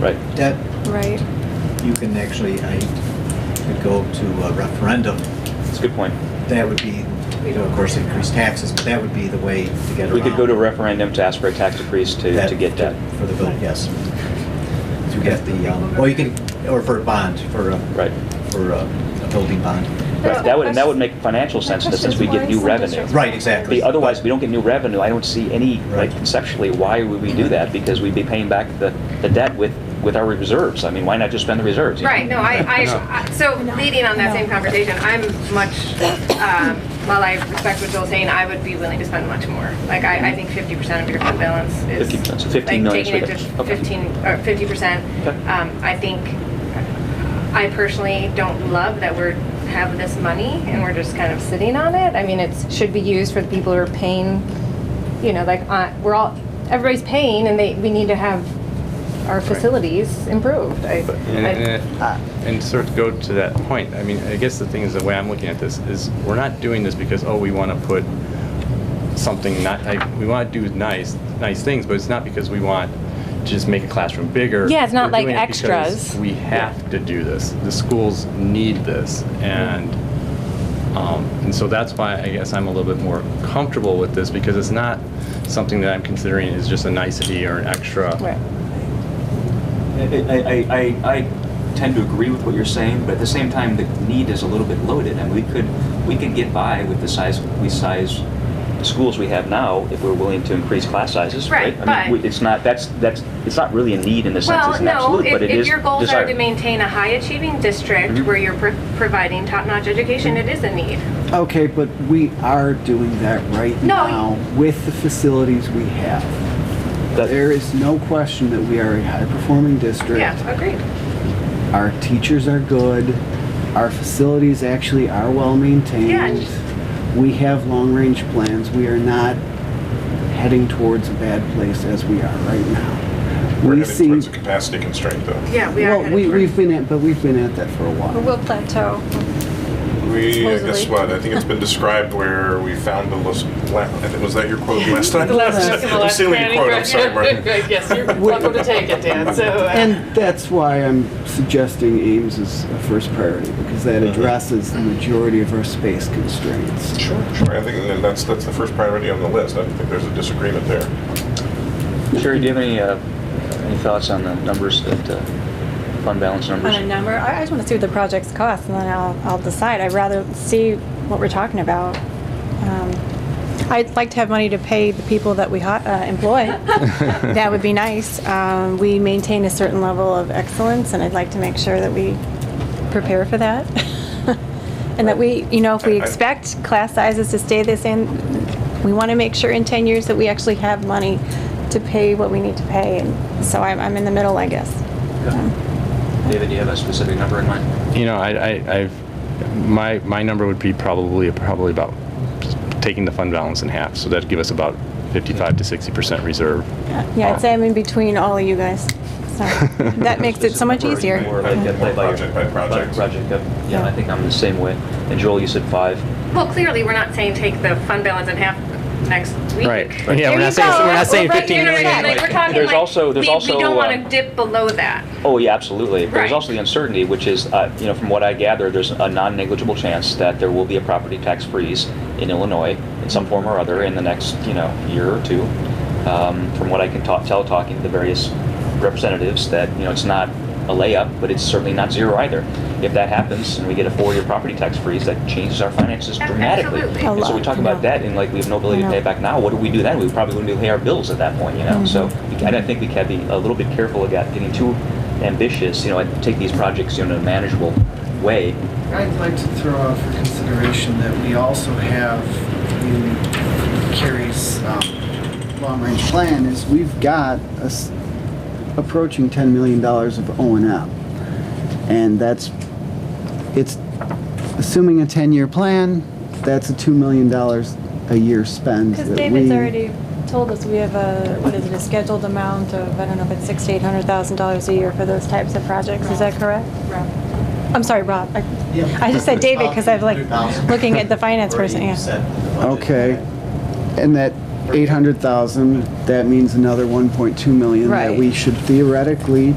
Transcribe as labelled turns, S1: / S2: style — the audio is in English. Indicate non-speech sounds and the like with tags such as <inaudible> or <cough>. S1: Right.
S2: That,
S3: Right.
S2: you can actually, I could go to a referendum.
S1: That's a good point.
S2: That would be, you know, of course, increase taxes, but that would be the way to get around.
S1: We could go to a referendum to ask for a tax decrease to,
S2: that-
S1: to get debt.
S2: For the vote, yes. To get the, um, well, you can, or for a bond, for a.
S1: Right.
S2: For a a building bond.
S1: Right, that would, and that would make financial sense in the sense we get new revenue.
S2: Right, exactly.
S1: The- Otherwise, we don't get new revenue. I don't see any, like
S2: Right.
S1: conceptually, why would we do that? Because we'd be paying back the, the debt with, with our reserves. I mean, why not just spend the reserves? you know?
S4: Right, no, I, I, I- so leading on that same conversation, I'm much, um, while I respect what Joel's saying, I would be willing to spend much more. Like, I, I think fifty percent of your fund balance is.
S1: 50%, so 15
S4: like,
S1: million is
S4: Taking it
S1: reduction.
S4: to
S1: Okay.
S4: fifteen, or fifty percent.
S1: Okay.
S4: Um, I think, I personally don't love that we're, have this money and we're just kind of sitting on it. I mean, it's, should be used for the people who are paying, you know, like, uh, we're all, everybody's paying and they, we need to have our facilities improved. I-
S5: And,
S4: I-
S5: and- uh, and sort of go to that point, I mean, I guess the thing is, the way I'm looking at this is, we're not doing this because, oh, we want to put something not, like, we want to do nice, nice things, but it's not because we want to just make a classroom bigger.
S3: Yeah, it's not
S5: We're doing it
S3: like
S5: because
S3: extras.
S5: We have to do this. The schools need this, and, um, and so that's why I guess I'm a little bit more comfortable with this, because it's not something that I'm considering is just a nicety or an extra.
S4: Right.
S1: I, I, I, I tend to agree with what you're saying, but at the same time, the need is a little bit loaded, and we could, we could get by with the size, we size the schools we have now if we're willing to increase class sizes, right?
S4: Right,
S1: I mean,
S4: but-
S1: we- It's not, that's, that's, it's not really a need in the sense, it's
S4: Well,
S1: an
S4: no,
S1: absolute,
S4: if,
S1: but it is
S4: if your goals are
S1: desired.
S4: to maintain a high achieving district
S1: Mhm.
S4: where you're pro- providing top-notch education, it is a need.
S6: Okay, but we are doing that right
S4: No,
S6: now with the facilities we have.
S1: That-
S6: There is no question that we are a high-performing district.
S4: Yeah, agreed.
S6: Our teachers are good. Our facilities actually are well-maintained. We have long-range plans. We are not heading towards a bad place as we are right now.
S7: We're
S6: We
S7: heading
S6: see,
S7: towards a capacity constraint, though.
S4: Yeah, we are
S6: well, we,
S4: headed
S6: we've been at, but we've been at that for a
S3: Or
S6: while.
S3: we'll plateau.
S7: We, uh, guess
S3: Supposedly.
S7: what, I think it's been described where we found the, last- la- I think- was that your quote
S8: <laughs>
S7: last time?
S8: The last, the
S7: I'm
S8: last
S7: stealing your
S8: planning
S7: quote, I'm sorry,
S8: direction.
S7: Martin.
S8: <laughs> Yes, you're welcome to take it, Dan, so. uh,
S6: And that's why I'm suggesting Ames is a first priority, because that addresses the majority of our space constraints.
S7: Sure, sure, I think that- that's, that's the first priority on the list, I don't think there's a disagreement there.
S1: Sherry, do you have any, uh, any thoughts on the numbers that, uh, fund balance numbers?
S3: On a number, I I just want to see what the projects cost and then I'll, I'll decide. I'd rather see what we're talking about. Um, I'd like to have money to pay the people that we hi- uh,
S7: <laughs>
S3: employ. That would be nice. Um, We maintain a certain level of excellence and I'd like to make sure that we prepare for that. <laughs> And that we, you know, if
S7: I-
S3: we
S7: I-
S3: expect class sizes to stay the same, we want to make sure in 10 years that we actually have money to pay what we need to pay. And so I'm, I'm in the middle, I guess.
S1: David, do you have a specific number in mind?
S5: You know, I, I, I've, my, my number would be probably, probably about taking the fund balance in half, so that'd give us about fifty-five to sixty percent reserve.
S3: Yeah, I'd say I'm in between all of you guys. So that makes it so much easier.
S1: Or like, uh, by- by-
S7: Project by project.
S1: Project, yep. yeah, I think I'm the same way. And Joel, you said five.
S4: Well, clearly, we're not saying take the fund balance in half next week.
S5: Yeah,
S4: There
S5: we're
S4: you
S5: not saying,
S4: go.
S5: we're not saying
S4: Right, you
S5: fifteen
S4: know what I
S5: million.
S4: mean? Like, we're talking
S1: There's
S4: like,
S1: also- there's
S4: we-
S1: also,
S4: We don't want
S1: um,
S4: to dip below that.
S1: Oh, yeah, absolutely. But There's
S4: Right.
S1: also the uncertainty, which is, uh, you know, from what I gather, there's a non-negligible chance that there will be a property tax freeze in Illinois in some form or other in the next, you know, year or two. Um, From what I can ta- tell, talking to the various representatives, that, you know, it's not a layup, but it's certainly not zero either. If that happens and we get a four-year property tax freeze, that changes our finances
S4: Ab-
S1: dramatically.
S4: absolutely.
S3: A
S1: And so we
S3: lot,
S1: talk about
S3: yeah.
S1: that and like we have no ability to
S3: I
S1: pay
S3: know. Mm-hmm.
S1: it back now. What do we do then? We probably wouldn't be able to pay our bills at that point, you know? So we So I think we can be a little bit careful about getting too ambitious, you know, and take these projects, you know, in a manageable way.
S9: I'd like to throw out for consideration that we also have in Carrie's um, long-range plan.
S6: plan is we've got a s- approaching $10 million of O and M. And that's, it's, assuming a 10-year plan, that's a $2 million a year spend.
S3: Because
S6: that
S3: David's
S6: we-
S3: already told us we have a, what is it, a scheduled amount of, I don't know if it's six to eight hundred thousand dollars a year for those types of projects. Is that correct? I'm sorry, Rob. I-
S2: Yeah.
S3: I just said David because I'm like looking at the finance person,
S2: Already
S3: yeah.
S2: set in the budget.
S6: Okay. And that 800,000, that means another 1.2 million
S3: Right.
S6: that we should theoretically